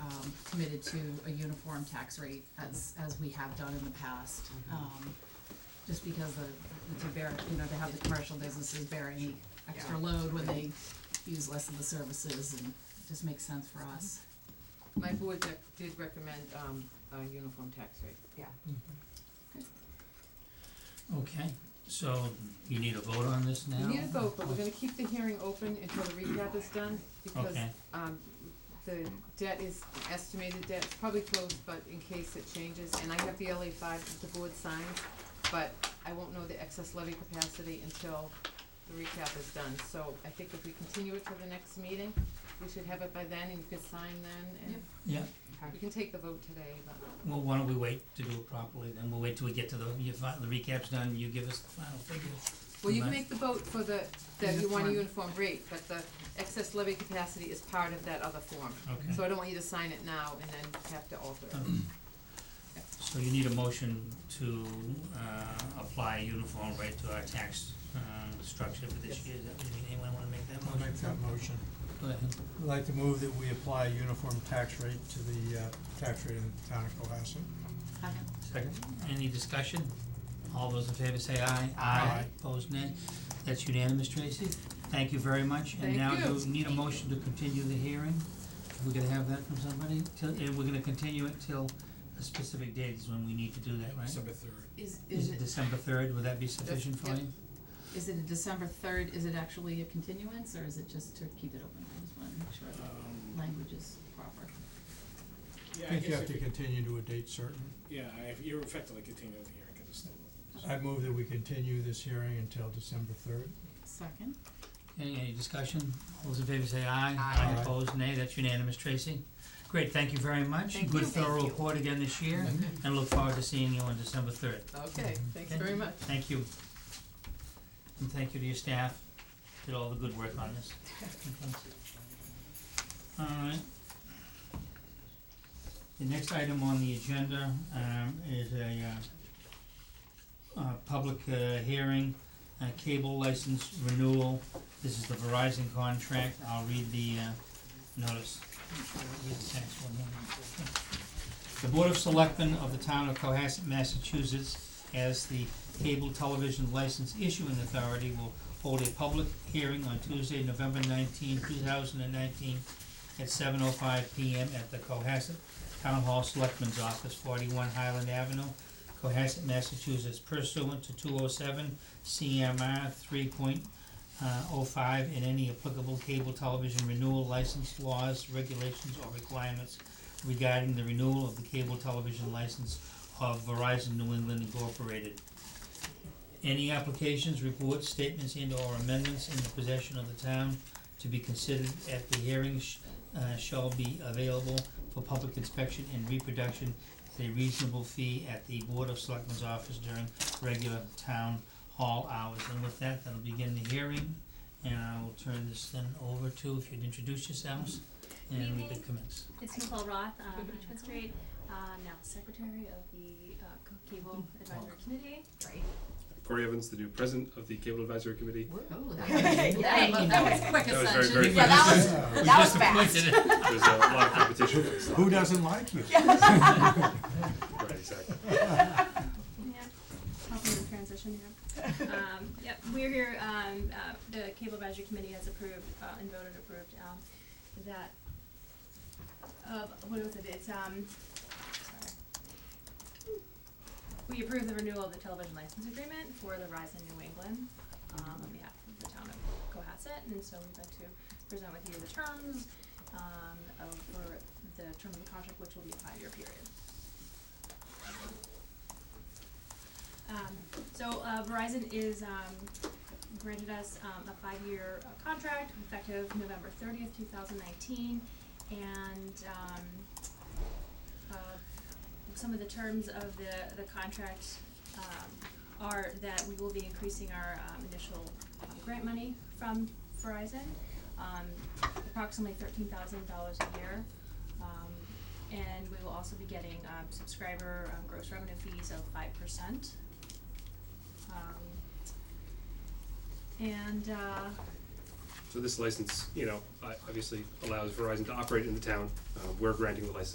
um, committed to a uniform tax rate as, as we have done in the past. Um, just because the, the- to bear, you know, to have the commercial businesses bear any extra load when they use less of the services and it just makes sense for us. My board dec- did recommend, um, a uniform tax rate. Yeah. Okay, so you need a vote on this now? Mm-hmm. We need a vote, Oh. but we're gonna keep the hearing open until the recap is done, because, Okay. um, the debt is, estimated debt is probably closed, but in case it changes, and I have the LA five that the board signs, but I won't know the excess levy capacity until the recap is done, so I think if we continue it till the next meeting, we should have it by then, and you could sign then, Yeah, and you can take the vote today, but, well, why don't we wait to do it properly, then we'll wait till we get to the, your fi- the recap's done, you give us the final figures. well, you can Right. make the vote for the, that you want a Uniform. uniform rate, but the excess levy capacity is part of that other form. So Okay, I don't want you to sign it now and then have to alter it. so you need a motion to, uh, apply a uniform rate to our tax, uh, structure for this Yes. year, Is that, what you mean? anyone wanna make that I'll motion? make that motion. Go ahead. I'd like to move that we apply a uniform tax rate to the uh, tax rate in the town of Cohasset. Second. Any discussion? All those in favor say aye. Aye. Opposed, nay. That's unanimous, Tracy. Thank you very much. Thank And now you. you need a motion to continue the hearing. We're gonna have that from somebody, till, and we're gonna continue it till a specific date is when we need to do that, right? December third. Is, Is it December third? Would that be sufficient for yep. you? is it a December third, is it actually a continuance, or is it just to keep it open? I just wanna make sure the language is proper. Um, Yeah, I I think you guess have if to you, continue to a date certain. yeah, I have, you're effectively continuing the hearing, cause it's still. I move that we continue this hearing until December third. Second, Any, any discussion? All those in favor say aye. Aye. Aye. Opposed, nay. That's unanimous, Tracy. Great, thank you very much. Thank Good you. Thank thorough you. report again this year, and look forward to seeing you on December third. Okay, thanks Okay. very much. Thank you. And thank you to your staff, did all the good work on this. Alright. The next item on the agenda, um, is a, uh, uh, public, uh, hearing, uh, cable license renewal. This is the Verizon contract, I'll read the, uh, notice. Read the text one more. The Board of Selectmen of the Town of Cohasset, Massachusetts, as the cable television license issuing authority will hold a public hearing on Tuesday, November 19, thousand and nineteen, at seven oh five P M at the Cohasset Town Hall Selectman's Office, forty-one Highland Avenue, Cohasset, Massachusetts, pursuant to two oh seven C M R three point oh five and any applicable cable television renewal license laws, regulations, or requirements regarding the renewal of the cable television license of Verizon New England Incorporated. Any applications, reports, statements and or amendments in the possession of the town to be considered at the hearing sh- uh, shall be available for public inspection and reproduction at a reasonable fee at the Board of Selectmen's office during regular town hall hours. And with that, that'll begin the hearing, and I will turn this then over to, if you'd introduce yourselves, and we could commence. It's Nicole Roth, um, Richmond Street, uh, now Secretary of the, uh, Co- Cable Advisory Committee. Right. Corey Evans, the new president of the Cable Advisory Committee. oh, that was, that was- that was quick That was ascension. very, very Yeah, that fast. Yeah. That was fast. There's a lot of competition for this. Uh, Who doesn't like you? Right, exactly. Yeah, helping the transition here. Um, yep, we're here, um, uh, the Cable Advisory Committee has approved, uh, and voted approved, um, that, uh, what was it, it's, um, sorry. We approved the renewal of the television license agreement for the Rise in New England, um, on behalf of the town of Cohasset, and so we'd like to present with you the terms, um, of, for the term of the contract, which will be a five-year period. Um, so, uh, Verizon is, um, granted us, um, a five-year uh, contract effective November thirtieth, two thousand nineteen. And, um, uh, some of the terms of the, the contract, um, are that we will be increasing our, um, initial um, grant money from Verizon, um, approximately thirteen thousand dollars a year. Um, and we will also be getting, um, subscriber, um, gross revenue fees of five percent. Um, and, uh, So this license, you know, uh, obviously allows Verizon to operate in the town. Uh, We're granting the license